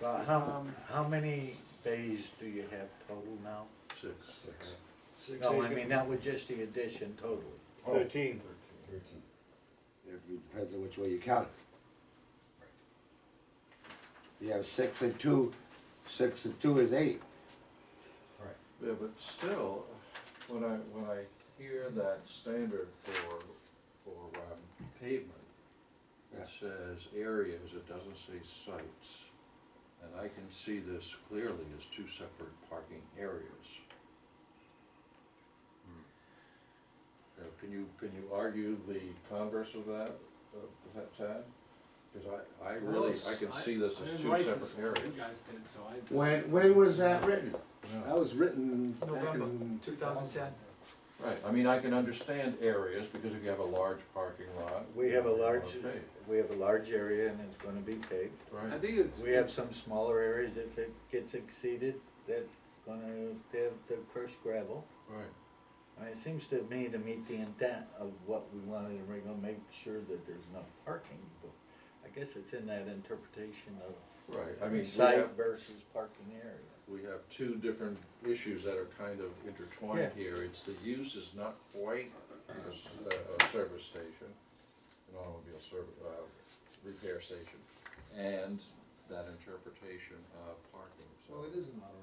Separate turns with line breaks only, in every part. Well, how,
Um,
how many bays do you have total now?
Six.
Six.
Six
No, I
acres.
mean, that was just the addition totally.
Oh,
Thirteen.
Thirteen.
It depends on which way you count it. You have six and two, six and two is eight.
Right.
Yeah, but still, when I, when I hear that standard for, for um, pavement,
Yeah.
it says areas, it doesn't say sites. And I can see this clearly as two separate parking areas. Now, can you, can you argue the converse of that, of that, Tad? Because I, I
Well,
really, I
it's-
can see this
I
as
didn't
two
write this
separate
one,
areas.
You guys did, so I.
When, when was that written?
Yeah.
That was written back
November
in.
2010.
Right, I mean, I can understand areas, because if you have a large parking lot.
We have a large,
okay,
we have a large area and it's gonna be paved.
I
Right,
think it's.
We have some smaller areas, if it gets exceeded, that's gonna have the first gravel.
right.
I mean, it seems to me to meet the intent of what we wanted, and we're gonna make sure that there's enough parking, but I guess it's in that interpretation
Right, I mean,
of
we have,
site versus parking area.
we have two different issues that are kind of intertwined here. It's the use is not quite a, s- uh, a- a service station, an automobile service, uh, repair station, and that interpretation of parking,
Well, it
so.
is an auto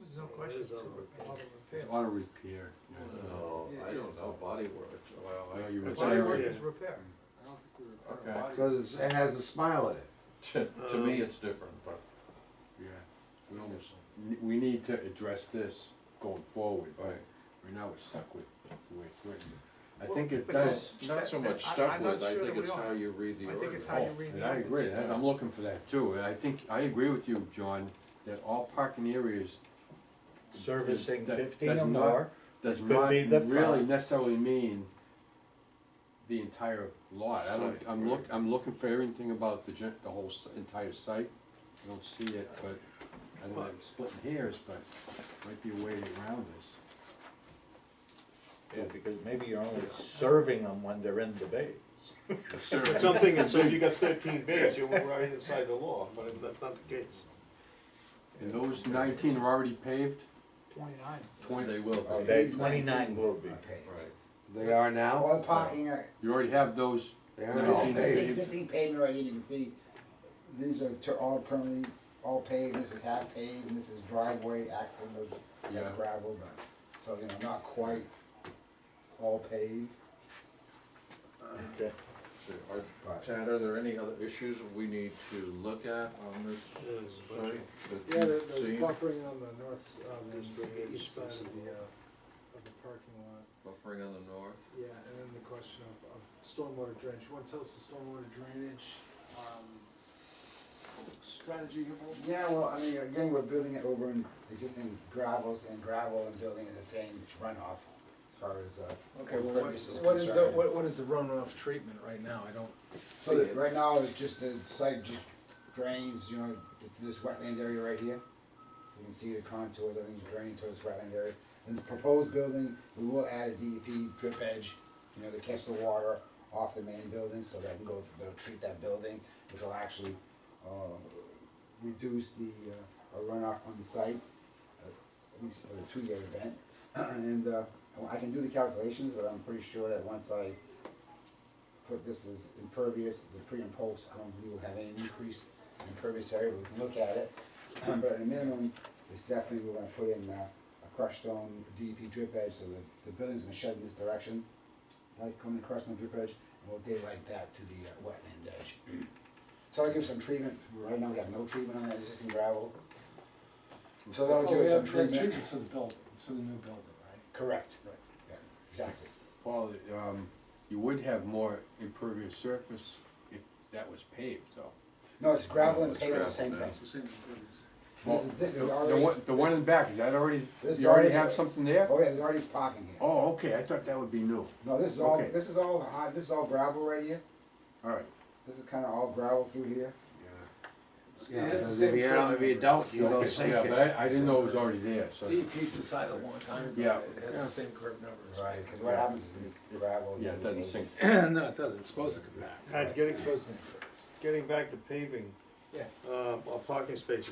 There's no question. it's a auto repair.
Auto repair.
No, Oh, I don't know, body works, well,
Well,
I,
you
It's
Body
repair-
work is repair.
repair. I don't think we
Okay.
repair bodies.
Cause it's- it has a smile in it.
to, to me, it's different, but
Yeah.
we almost,
N- We need to address this going forward, but
Right.
right now we're stuck with the way it's written. I
Well,
think it
but that's-
does,
Not so
That-
much
that- I-
stuck
I'm
with,
not
I
sure
think
that
it's
we are.
how you read the
I
order.
think it's how you read
and
the
Oh, I agree,
ordinance.
I- I'm looking for that too, and I think, I agree with you, John, that all parking areas
Servicing
That-
fifteen
that's
or
not-
more,
does
It could
not
be the
really
front.
necessarily mean the entire lot, I don't,
Site,
I'm
right.
look, I'm looking for everything about the gen, the whole s- entire site. I don't see it, but, I don't know, I'm splitting hairs, but might be a way around this.
Yeah, because maybe you're only serving them when they're in the bay.
Sir.
Something, and so you got thirteen bays, you're right inside the law, but that's not the case.
And those nineteen are already paved,
Twenty-nine.
twenty,
They will
Oh,
be,
they- 29 will be.
right.
They are now?
All the parking are,
you already have those,
They
Let
are
me
all
see
that's
this.
paved.
the existing pavement already, you can see, these are tur- all currently, all paved, this is half paved, and this is driveway, access, and that's
Yeah.
gravel, but, so, you know, not quite all paved.
Okay.
So are- Tad, are there any other issues we need to look at on this site? that
Yeah, there-
you've
there's
seen?
buffering on the north, s- on the
Just bring it
east side
expensive.
of the, uh, of the parking lot.
Buffering on the north,
Yeah, and then the question of, of stormwater drainage. You wanna tell us the stormwater drainage, um, strategy here, Paul?
Yeah, well, I mean, again, we're building it over in existing gravels and gravel and building in the same runoff as far as, uh. impervious concerned.
what is the runoff treatment right now? I don't
So that right now, it's just the site just drains, you know, th- this wetland area right here. You can see the contours, everything's draining towards this wetland area. In the proposed building, we will add a DEP drip edge, you know, to catch the water off the main building, so that can go, they'll treat that building, which will actually, uh, reduce the uh, runoff on the site, uh, at least for the two-year event. And, uh, I can do the calculations, but I'm pretty sure that once I put this as impervious, the pre and post, I don't believe we'll have any increase in impervious area, we can look at it. But at a minimum, it's definitely, we're gonna put in uh, a crushed stone DEP drip edge, so the, the building's gonna shed in this direction. Like coming across the drip edge, and we'll daylight that to the uh, wetland edge. So I'll give some treatment, right now we got no treatment on that existing gravel. So
Oh,
that'll give us some treatment.
for the building, it's for the new building, right?
Correct, right, yeah, exactly.
Paul, um, you would have more impervious surface if that was paved, though.
No, it's gravel and
It's
pavement,
gravel
the same
now.
thing.
It's the same improvements.
This is, this
The-
is
the
already,
one- The one in the back, is that already,
This is
you already
already-
have something there?
oh yeah, there's already parking here.
Oh, okay, I thought that would be new,
No, this is all,
Okay.
this is all, hard- this is all gravel right here,
all right.
this is kinda all gravel through here.
Yeah,
Yeah,
it's the
because
same
if you don't, if you
parameters.
don't, you go
Okay,
sink
Yeah, but
it.
I, I didn't know it was already there, so,
DEP decided a long time ago,
Yeah.
that it has the same curve numbers.
Right, cause what happens is the gravel.
yeah, it doesn't sink.
No, it doesn't, it's supposed to come back.
And getting, getting back to paving, um,
Yeah.
uh, a parking space